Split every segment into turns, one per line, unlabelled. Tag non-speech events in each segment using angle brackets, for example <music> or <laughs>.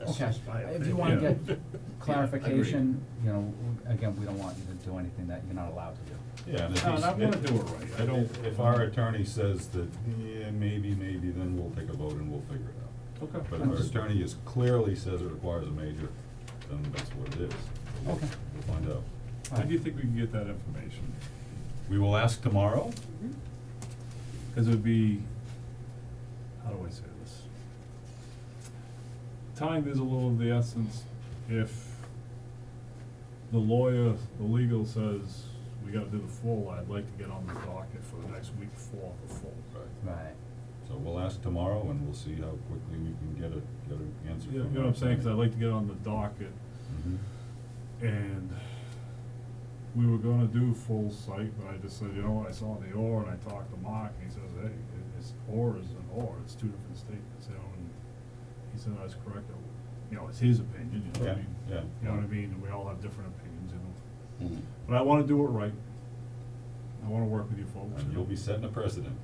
Okay,
just my
if you wanna
opinion.
get clarification, you know, again, we don't want you to do anything that you're not allowed to do.
Yeah, and if
No, and
he's-
I wanna
if-
do it right.
I don't, if our attorney says that, yeah, maybe, maybe, then we'll take a vote and we'll figure it out.
Okay.
But if our attorney is clearly says it requires a major, then that's what it is. We'll-
Okay.
We'll find out.
All
When do you think we can get that information?
We will ask tomorrow,
Cause it would be, how do I say this? Time is a little of the essence if the lawyer, the legal says, we gotta do the full, I'd like to get on the docket for the next week for the full.
Right.
Right, <laughs>
so we'll ask tomorrow and we'll see how quickly we can get a, get an answer from
You know what
our
I'm saying, cause I'd
attorney.
like to get on the docket
Mhm.
And we were gonna do full site, but I just said, you know, what, I saw the or and I talked to Mark and he says, hey, it- it's or is an or, it's two different statements, you know, and he said, I was correct, you know, it's his opinion, you know what I
Yeah,
mean?
yeah. Hmm.
You know what I mean, and we all have different opinions, you know,
Mhm.
but I wanna do it right. I wanna work with you folks.
And you'll be setting a precedent.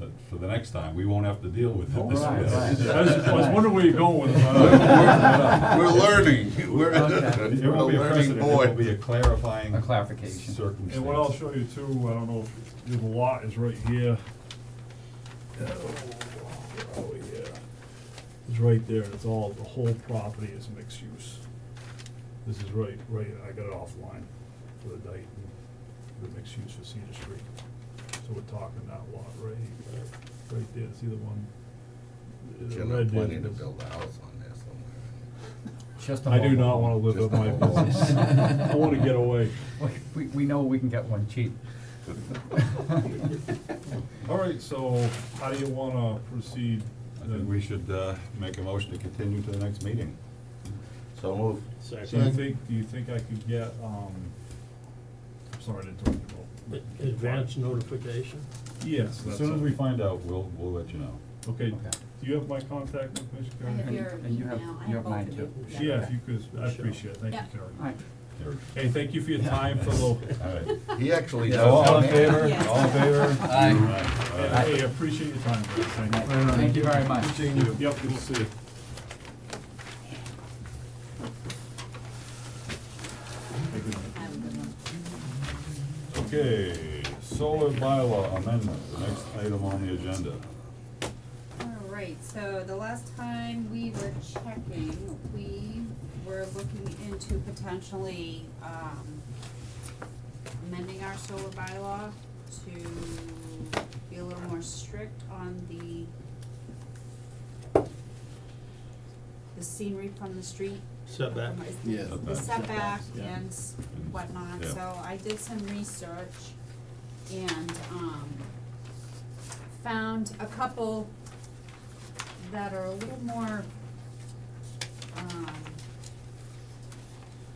That for the next time, we won't have to deal with it this way.
Right, right.
I was, I was wondering where you're going with it.
We're we're learning, we're,
Okay.
It
we're a
won't be a
learning
precedent, it will be a
boy.
clarifying
a clarification.
circumstance.
And what I'll show you too, I don't know if, the lot is right here. Oh, oh, yeah. It's right there, it's all, the whole property is mixed use. This is right, right, I got it offline for the night, the mixed use for Cedar Street. So we're talking that lot right, right there, see the one? the
You're
red
not
there,
planning to
this-
build a house on there somewhere.
Just a
I do
mobile
not
home.
wanna live
Just
with
a
my
mobile home.
business. I wanna get away.
We, we know we can get one <laughs> cheap.
All right, so how do you wanna proceed?
I think we should, uh, make a motion to continue to the next meeting.
So move.
Do you think, do you think I could get, um, I'm sorry to interrupt you, Bill.
Advance notification?
Yes,
As
that's
soon as we
it.
find out, we'll, we'll let you know.
Okay,
Okay.
do you have my contact information,
I have
Carrie?
your
and you have-
email, I
you have
have both
mine
of
too.
you.
Yeah, if you could, I
Michelle.
appreciate it, thank
Yeah.
you,
All right,
Carrie.
Here.
Hey, thank you for your time for
<laughs>
the,
All right.
He actually.
So all in
does.
favor,
Yes.
all in favor?
Aye.
All right.
hey, I appreciate your time, guys, thank you.
thank you very much.
Yep, we'll see you. Hey, good night.
I have a good one.
Okay, solar bylaw amendment, the next item on the agenda.
All right, so the last time we were checking, we were looking into potentially, um, amending our solar bylaw to be a little more strict on the the scenery from the street.
Setback.
Yes.
The setback
Setbacks, yeah.
and whatnot,
Yeah.
so I did some research and, um, found a couple that are a little more, um,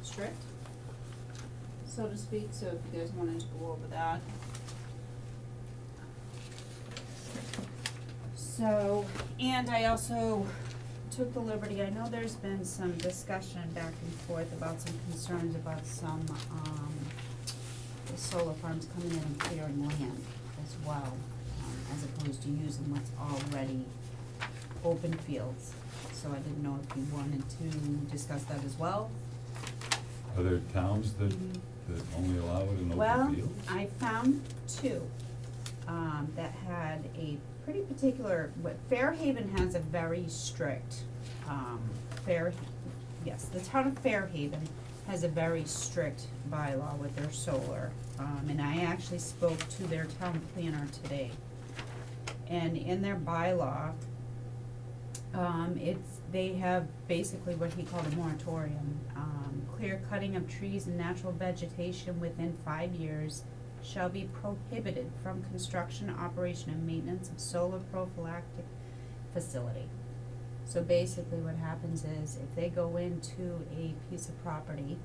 strict, so to speak, so if you guys wanted to go over that. So, and I also took the liberty, I know there's been some discussion back and forth about some concerns about some, um, the solar farms coming in and clearing land as well, um, as opposed to using what's already open fields. So I didn't know if you wanted to discuss that as well.
Are there towns that,
Mhm.
that only allow it in
Well,
open fields?
I found two, um, that had a pretty particular, what Fairhaven has a very strict, um, Fair, yes, the town of Fairhaven has a very strict bylaw with their solar. Um, and I actually spoke to their town planner today. And in their bylaw, um, it's, they have basically what he called a moratorium, um, clear cutting of trees and natural vegetation within five years shall be prohibited from construction, operation, and maintenance of solar prophylactic facility. So basically what happens is if they go into a piece of property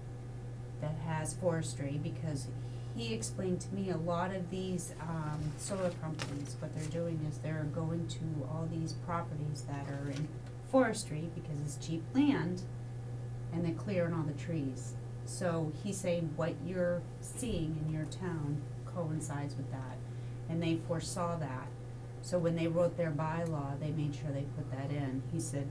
that has forestry, because he explained to me a lot of these, um, solar companies, what they're doing is they're going to all these properties that are in forestry because it's cheap land and they're clearing all the trees. So he's saying what you're seeing in your town coincides with that. And they foresaw that. So when they wrote their bylaw, they made sure they put that in. He said,